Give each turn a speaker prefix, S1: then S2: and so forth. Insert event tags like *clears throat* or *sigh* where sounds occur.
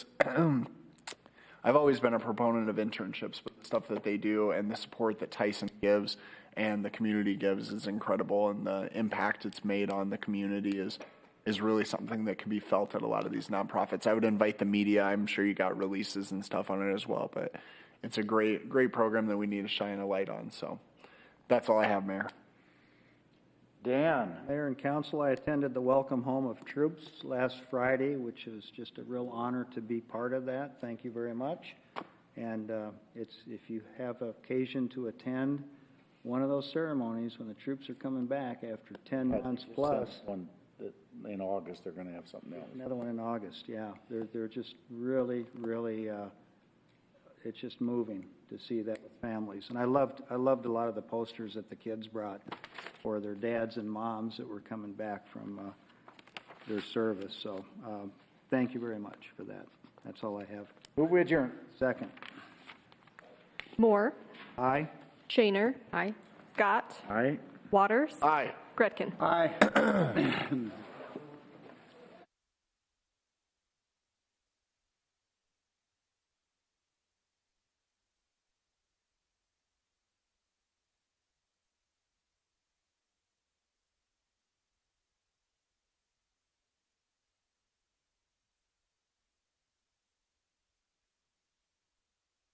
S1: *clears throat* I've always been a proponent of internships, but the stuff that they do and the support that Tyson gives and the community gives is incredible, and the impact it's made on the community is is really something that can be felt at a lot of these nonprofits. I would invite the media. I'm sure you got releases and stuff on it as well, but it's a great great program that we need to shine a light on. So that's all I have, Mayor.
S2: Dan,
S3: Mayor and council, I attended the Welcome Home of Troops last Friday, which is just a real honor to be part of that. Thank you very much. And uh, it's, if you have occasion to attend one of those ceremonies when the troops are coming back after 10 months plus,
S2: One, that- in August, they're gonna have something else.
S3: another one in August, yeah. They're, they're just really, really, uh, it's just moving to see that with families. And I loved, I loved a lot of the posters that the kids brought for their dads and moms that were coming back from uh, their service. So um, thank you very much for that. That's all I have.
S2: Move we adjourn.
S3: Second.
S4: Moore,
S3: Aye?
S4: Shaner. Aye. Scott,
S2: All right.
S4: Waters,
S1: Aye.
S4: Gretkin.
S3: Aye.